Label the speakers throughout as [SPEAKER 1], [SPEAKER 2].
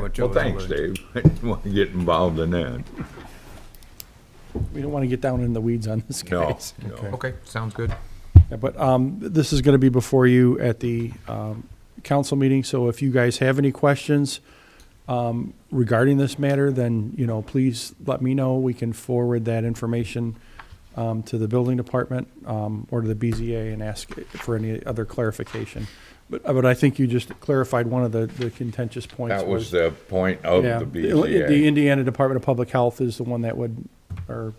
[SPEAKER 1] what Joe
[SPEAKER 2] Well,
[SPEAKER 1] was
[SPEAKER 2] thanks,
[SPEAKER 1] alluding to.
[SPEAKER 2] Dave. I didn't want to get involved in that.
[SPEAKER 3] We don't want to get down in the weeds on this
[SPEAKER 2] No,
[SPEAKER 3] case.
[SPEAKER 2] no.
[SPEAKER 1] Okay, sounds good.
[SPEAKER 3] Yeah, But um, this is going to be before you at the um, council meeting, so if you guys have any questions um, regarding this matter, then, you know, please let me know. We can forward that information um, to the building department um, or to the BZA and ask for any other clarification. But, uh, but I think you just clarified one of the the contentious points.
[SPEAKER 2] That was the point of
[SPEAKER 3] Yeah,
[SPEAKER 2] the E
[SPEAKER 3] The
[SPEAKER 2] BZA.
[SPEAKER 3] Indiana Department of Public Health is the one that would, or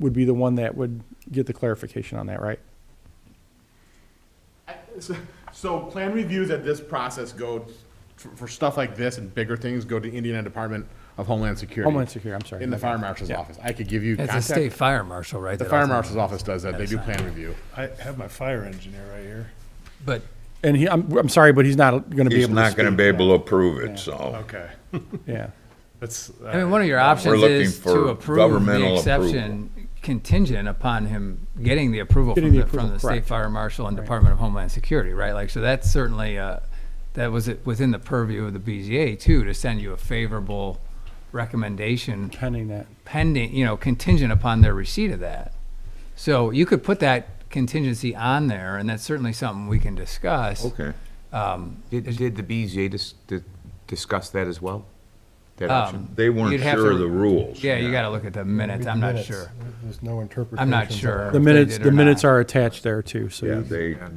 [SPEAKER 3] would be the one that would get the clarification on that, right?
[SPEAKER 4] I- so- So plan reviews at this process go, for for stuff like this and bigger things, go to Indiana Department of Homeland Security.
[SPEAKER 3] Homeland Security, I'm sorry.
[SPEAKER 4] In the fire marshal's office. I could give you
[SPEAKER 5] It's a
[SPEAKER 4] contact.
[SPEAKER 5] state fire marshal, right?
[SPEAKER 4] The
[SPEAKER 5] that
[SPEAKER 4] fire
[SPEAKER 5] ultimately-
[SPEAKER 4] marshal's office does that. They do plan review.
[SPEAKER 6] I have my fire engineer right here.
[SPEAKER 5] But
[SPEAKER 3] And he, I'm, I'm sorry, but he's not going to be
[SPEAKER 2] He's
[SPEAKER 3] able to
[SPEAKER 2] not
[SPEAKER 3] speak.
[SPEAKER 2] gonna be able to approve it, so.
[SPEAKER 6] Okay,
[SPEAKER 3] Yeah.
[SPEAKER 6] that's,
[SPEAKER 5] I mean, one of your options
[SPEAKER 2] looking
[SPEAKER 5] is
[SPEAKER 2] for
[SPEAKER 5] to approve the
[SPEAKER 2] governmental
[SPEAKER 5] exception contingent upon him getting the approval
[SPEAKER 3] Getting
[SPEAKER 5] from
[SPEAKER 3] the
[SPEAKER 5] the, from
[SPEAKER 3] approval,
[SPEAKER 5] the state
[SPEAKER 3] correct.
[SPEAKER 5] fire marshal and Department of Homeland Security, right? Like, so that's certainly, uh, that was it- within the purview of the BZA too, to send you a favorable recommendation
[SPEAKER 3] Pending that.
[SPEAKER 5] pending, you know, contingent upon their receipt of that. So you could put that contingency on there and that's certainly something we can discuss.
[SPEAKER 2] Okay.
[SPEAKER 1] Did, did the BZA dis- di- discuss that as well? That
[SPEAKER 2] Uh,
[SPEAKER 5] Um,
[SPEAKER 1] option?
[SPEAKER 2] They weren't
[SPEAKER 5] You'd have
[SPEAKER 2] sure
[SPEAKER 5] to-
[SPEAKER 2] of the rules.
[SPEAKER 5] Yeah, you gotta look at the minutes. I'm not sure.
[SPEAKER 6] There's no interpretation.
[SPEAKER 5] I'm not sure.
[SPEAKER 3] The
[SPEAKER 5] if they
[SPEAKER 3] minutes,
[SPEAKER 5] did
[SPEAKER 3] the
[SPEAKER 5] or
[SPEAKER 3] minutes
[SPEAKER 5] not.
[SPEAKER 3] are attached there too, so.
[SPEAKER 2] Yeah,
[SPEAKER 3] you-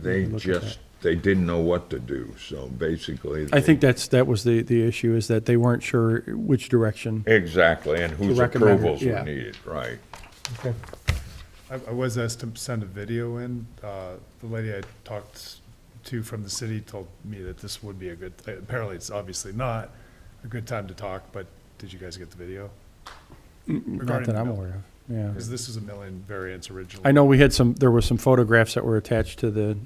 [SPEAKER 2] they, they just, they didn't know what to do, so basically.
[SPEAKER 3] I
[SPEAKER 2] they-
[SPEAKER 3] think that's, that was the, the issue is that they weren't sure which direction.
[SPEAKER 2] Exactly, and whose
[SPEAKER 3] recommend it,
[SPEAKER 2] approvals were
[SPEAKER 3] yeah.
[SPEAKER 2] needed, right.
[SPEAKER 6] I, I was asked to send a video in. Uh, the lady I talked to from the city told me that this would be a good, apparently it's obviously not a good time to talk, but did you guys get the video?
[SPEAKER 3] Not that I'm aware of, yeah.
[SPEAKER 6] Because this is a million variants originally.
[SPEAKER 3] I know we had some, there were some photographs that were attached to the,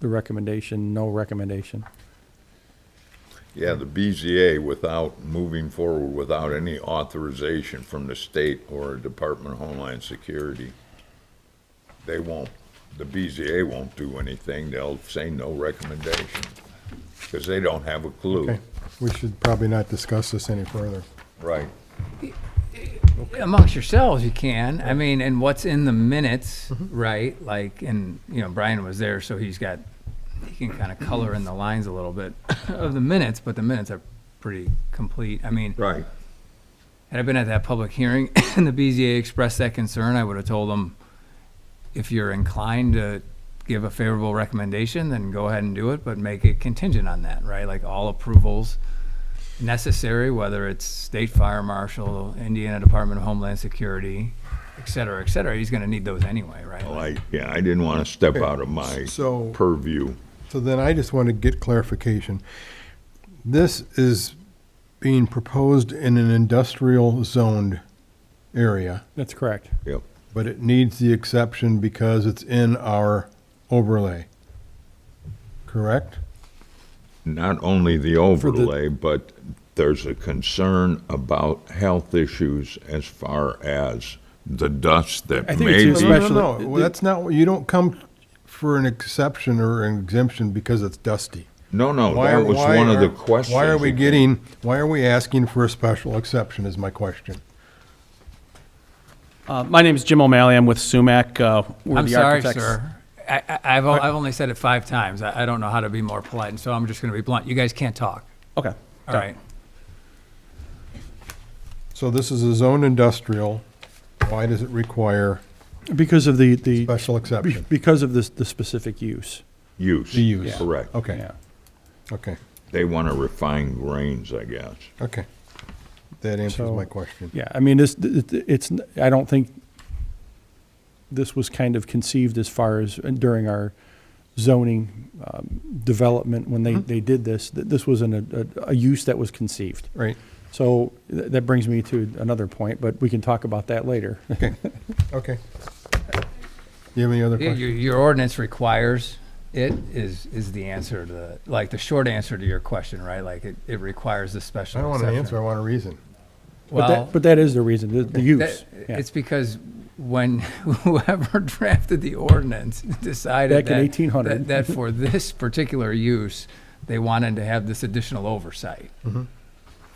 [SPEAKER 3] the recommendation, no recommendation.
[SPEAKER 2] Yeah, the BZA without, moving forward without any authorization from the state or Department of Homeland Security. They won't, the BZA won't do anything, they'll say no recommendation, because they don't have a clue.
[SPEAKER 7] Okay, we should probably not discuss this any further.
[SPEAKER 2] Right,
[SPEAKER 5] amongst yourselves you can i mean and what's in the minutes right like and you know brian was there so he's got he can kind of color in the lines a little bit of the minutes but the minutes are pretty complete i mean
[SPEAKER 2] right.
[SPEAKER 5] had i been at that public hearing and the bza expressed that concern i would have told them if you're inclined to give a favorable recommendation then go ahead and do it but make it contingent on that right like all approvals necessary, whether it's state fire marshal, Indiana Department of Homeland Security, et cetera, et cetera. He's gonna need those anyway, right?
[SPEAKER 2] Well, I, yeah, I didn't want to step out of my
[SPEAKER 7] So-
[SPEAKER 2] purview.
[SPEAKER 7] So then I just want to get clarification. This is being proposed in an industrial zoned area,
[SPEAKER 3] That's correct.
[SPEAKER 2] Yep.
[SPEAKER 7] but it needs the exception because it's in our overlay. Correct?
[SPEAKER 2] Not only the
[SPEAKER 3] the-
[SPEAKER 2] overlay, but there's a concern about health issues as far as the dust
[SPEAKER 3] I
[SPEAKER 2] that
[SPEAKER 3] think it's
[SPEAKER 2] may
[SPEAKER 3] in
[SPEAKER 2] be
[SPEAKER 3] special-
[SPEAKER 7] No, no,
[SPEAKER 3] Especially-
[SPEAKER 7] no, well, that's not, you don't come for an exception or an exemption because it's dusty.
[SPEAKER 2] No, no,
[SPEAKER 7] Why are-
[SPEAKER 2] that was
[SPEAKER 7] why
[SPEAKER 2] one of the
[SPEAKER 7] are-
[SPEAKER 2] questions.
[SPEAKER 7] Why are we
[SPEAKER 2] that-
[SPEAKER 7] getting, why are we asking for a special exception is my question.
[SPEAKER 8] Uh, My name is Jim O'Malley. I'm with Sumac. uh, We're
[SPEAKER 5] I'm
[SPEAKER 8] the
[SPEAKER 5] sorry,
[SPEAKER 8] architects.
[SPEAKER 5] sir. I, I, I've, o- I've only said it five times. I, I don't know how to be more polite, and so I'm just gonna be blunt. You guys can't talk,
[SPEAKER 8] Okay.
[SPEAKER 5] all right?
[SPEAKER 7] So this is a zone industrial. Why does it require
[SPEAKER 3] Because of the, the,
[SPEAKER 7] special
[SPEAKER 3] be-
[SPEAKER 7] exception?
[SPEAKER 3] because of this, the specific use.
[SPEAKER 2] Use.
[SPEAKER 7] The use. Yeah.
[SPEAKER 2] Correct.
[SPEAKER 7] Okay,
[SPEAKER 3] Yeah.
[SPEAKER 7] okay,
[SPEAKER 2] They want to refine grains, I guess.
[SPEAKER 7] okay. That answers
[SPEAKER 3] So-
[SPEAKER 7] my question.
[SPEAKER 3] Yeah, I mean, this, th- th- it's, n- I don't think this was kind of conceived as far as uh, during our zoning um, development, when
[SPEAKER 5] Mm-hmm.
[SPEAKER 3] they, they did this, th- this was an, a, a use that was conceived.
[SPEAKER 7] Right,
[SPEAKER 3] So th- that brings me to another point, but we can talk about that later.
[SPEAKER 7] okay. You have any other
[SPEAKER 5] Yeah,
[SPEAKER 7] questions?
[SPEAKER 5] Your, your ordinance requires it is, is the answer to the, like, the short answer to your question, right? Like, it, it requires the special
[SPEAKER 7] I don't want an
[SPEAKER 5] exception.
[SPEAKER 7] answer, I want a reason.
[SPEAKER 3] But
[SPEAKER 5] Well,
[SPEAKER 3] that, but that is the reason, the- the use.
[SPEAKER 5] That-
[SPEAKER 3] yeah.
[SPEAKER 5] It's because when whoever drafted the ordinance decided
[SPEAKER 3] Back in
[SPEAKER 5] that-
[SPEAKER 3] 1800.
[SPEAKER 5] that, that for this particular use, they wanted to have this additional oversight.